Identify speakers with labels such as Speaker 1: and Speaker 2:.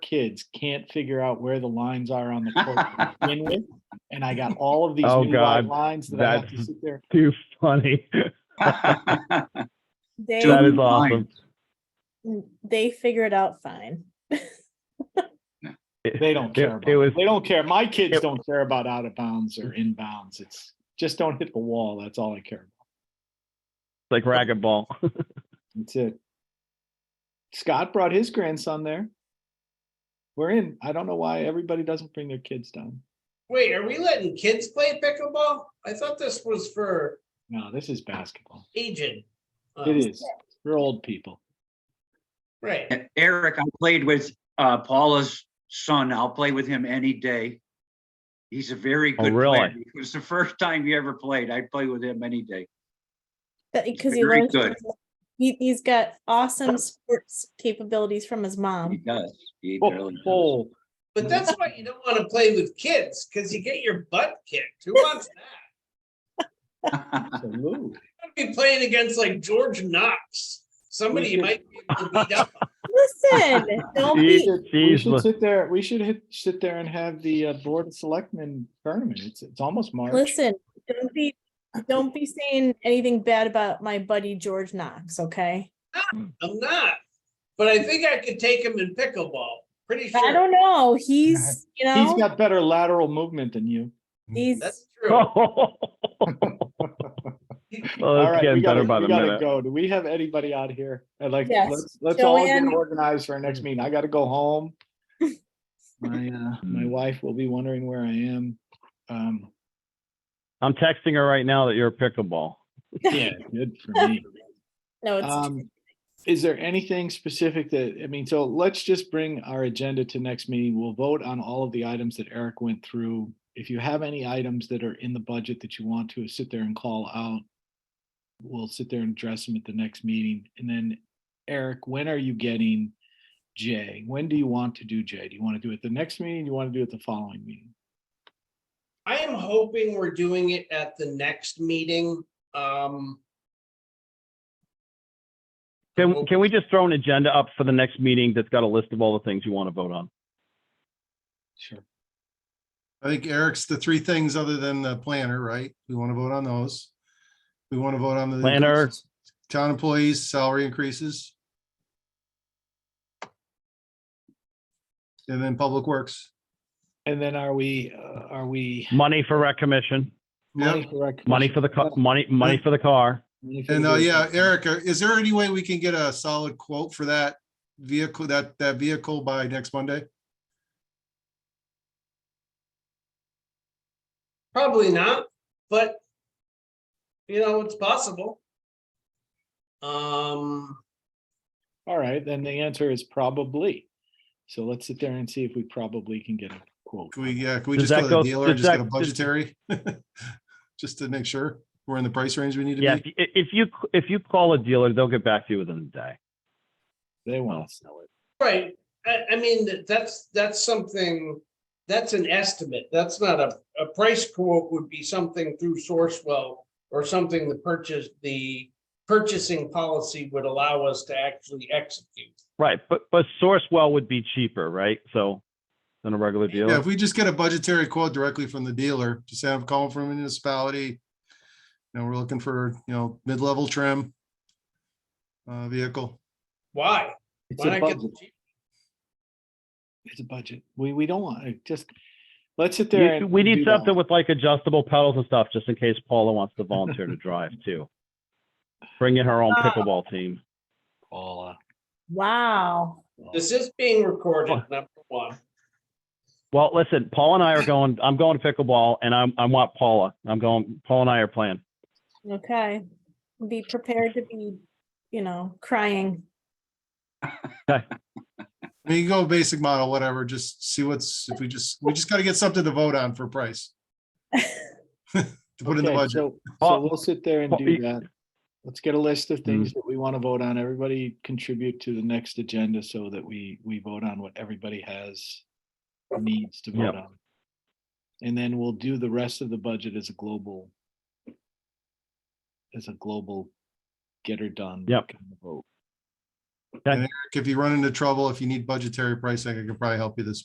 Speaker 1: kids can't figure out where the lines are on the court to begin with. And I got all of these
Speaker 2: Oh,
Speaker 1: new wide
Speaker 2: God.
Speaker 1: lines that I have to
Speaker 2: That's-
Speaker 1: sit there.
Speaker 2: Too funny.
Speaker 3: They
Speaker 2: That is
Speaker 3: mm,
Speaker 2: awesome.
Speaker 3: they figure it out fine.
Speaker 1: They don't
Speaker 2: It-
Speaker 1: care
Speaker 2: It
Speaker 1: about,
Speaker 2: was,
Speaker 1: they don't care. My kids
Speaker 2: it-
Speaker 1: don't care about out of bounds or inbounds. It's just don't hit the wall. That's all I care about.
Speaker 2: like racquetball.
Speaker 1: That's it. Scott brought his grandson there. We're in. I don't know why everybody doesn't bring their kids down.
Speaker 4: Wait, are we letting kids play pickleball? I thought this was for
Speaker 1: No, this is basketball.
Speaker 4: aging. Uh,
Speaker 1: It is. We're old people.
Speaker 4: Right.
Speaker 5: Eric, I played with uh, Paula's son. I'll play with him any day. He's a very
Speaker 2: Oh,
Speaker 5: good player.
Speaker 2: really?
Speaker 5: It was the first time he ever played. I'd play with him any day.
Speaker 3: Because he
Speaker 5: very
Speaker 3: learns,
Speaker 5: good.
Speaker 3: from- he, he's got awesome sports capabilities from his
Speaker 5: He
Speaker 3: mom.
Speaker 5: does. He really does.
Speaker 1: Oh,
Speaker 4: But that's why you don't want to play with kids, because you get your butt kicked. Who wants that?
Speaker 1: absolutely.
Speaker 4: I'd be playing against like George Knox. Somebody you might be able to beat up.
Speaker 3: Listen, don't
Speaker 2: He-
Speaker 3: be,
Speaker 1: We
Speaker 2: He's,
Speaker 1: should sit there, we should hit, sit there and have the uh, Board of Selectmen tournament. It's, it's almost March.
Speaker 3: listen, don't be, don't be saying anything bad about my buddy George Knox, okay?
Speaker 4: I'm not. But I think I could take him in pickleball. Pretty
Speaker 3: I
Speaker 4: sure.
Speaker 3: don't know, he's, you
Speaker 1: He's
Speaker 3: know,
Speaker 1: got better lateral movement than you.
Speaker 3: he's,
Speaker 4: That's true.
Speaker 2: well,
Speaker 1: All
Speaker 2: it's
Speaker 1: right, we
Speaker 2: getting
Speaker 1: gotta,
Speaker 2: better
Speaker 1: we
Speaker 2: by the
Speaker 1: gotta
Speaker 2: minute.
Speaker 1: go. Do we have anybody out here? I'd like,
Speaker 3: Yes.
Speaker 1: let's, let's all get
Speaker 3: Joanne.
Speaker 1: organized for our next meeting. I gotta go home. My, uh, my wife will be wondering where I am. Um,
Speaker 2: I'm texting her right now that you're a pickleball.
Speaker 1: yeah, good for me.
Speaker 3: no, it's,
Speaker 1: Um, is there anything specific that, I mean, so let's just bring our agenda to next meeting. We'll vote on all of the items that Eric went through. If you have any items that are in the budget that you want to sit there and call out, we'll sit there and address them at the next meeting. And then Eric, when are you getting Jay? When do you want to do Jay? Do you want to do it the next meeting? Do you want to do it the following meeting?
Speaker 4: I am hoping we're doing it at the next meeting. Um,
Speaker 2: Can, can we just throw an agenda up for the next meeting that's got a list of all the things you want to vote on?
Speaker 1: Sure.
Speaker 6: I think Eric's the three things other than the planner, right? We want to vote on those. We want to vote on the.
Speaker 2: Planner.
Speaker 6: increases. Town employees, salary increases. And then public works.
Speaker 1: And then are we, uh, are we?
Speaker 2: Money for rec commission,
Speaker 6: Yeah,
Speaker 1: for our
Speaker 2: money for the,
Speaker 1: commission-
Speaker 2: ca- money, money for the car.
Speaker 1: Money for
Speaker 6: and
Speaker 1: the
Speaker 6: uh, yeah,
Speaker 1: business.
Speaker 6: Erica, is there any way we can get a solid quote for that vehicle, that, that vehicle by next Monday?
Speaker 4: Probably not, but you know, it's possible. Um,
Speaker 1: All right, then the answer is probably. So let's sit there and see if we probably can get a quote.
Speaker 6: Can we, yeah, can we
Speaker 2: Does
Speaker 6: just go
Speaker 2: that
Speaker 6: to the
Speaker 2: go-
Speaker 6: dealer
Speaker 2: does
Speaker 6: and just get
Speaker 2: that-
Speaker 6: a
Speaker 2: does-
Speaker 6: budgetary? Just to make sure we're in the price range we need to
Speaker 2: Yeah,
Speaker 6: be.
Speaker 2: if, if you, if you call a dealer, they'll get back to you within the day.
Speaker 1: They want to sell it.
Speaker 4: right, I, I mean, that- that's, that's something, that's an estimate, that's not a, a price quote would be something through Sourcewell or something the purchase, the purchasing policy would allow us to actually execute.
Speaker 2: Right, but, but Sourcewell would be cheaper, right? So than a regular
Speaker 6: Yeah,
Speaker 2: dealer.
Speaker 6: if we just get a budgetary quote directly from the dealer, just have call from a municipality. You know, we're looking for, you know, mid-level trim. Uh, vehicle.
Speaker 4: Why?
Speaker 1: It's
Speaker 4: Why
Speaker 1: a
Speaker 4: not get the
Speaker 1: budget.
Speaker 4: cheap-
Speaker 1: It's a budget. We, we don't want, to just, let's sit there.
Speaker 2: You-
Speaker 1: and
Speaker 2: We need
Speaker 1: do that.
Speaker 2: something with like adjustable pedals and stuff, just in case Paula wants to volunteer to drive too. Bring in her own pickleball team.
Speaker 1: Paula.
Speaker 3: wow.
Speaker 4: This is being recorded, number one.
Speaker 2: Well, listen, Paul and I are going, I'm going to pickleball and I'm, I want Paula. I'm going, Paul and I are playing.
Speaker 3: Okay, be prepared to be, you know, crying.
Speaker 6: I mean, you go basic model, whatever, just see what's, if we just, we just gotta get something to vote on for price. To put in the
Speaker 1: Okay,
Speaker 6: budget.
Speaker 1: so, so
Speaker 2: Paul-
Speaker 1: we'll sit there and
Speaker 2: Paul,
Speaker 1: do
Speaker 2: you- Mm.
Speaker 1: that. Let's get a list of things that we want to vote on. Everybody contribute to the next agenda so that we, we vote on what everybody has needs to vote
Speaker 2: Yep.
Speaker 1: on. And then we'll do the rest of the budget as a global as a global get her done.
Speaker 2: Yep.
Speaker 1: kind of Vote.
Speaker 6: If you run into trouble, if you need budgetary pricing, I could probably help you this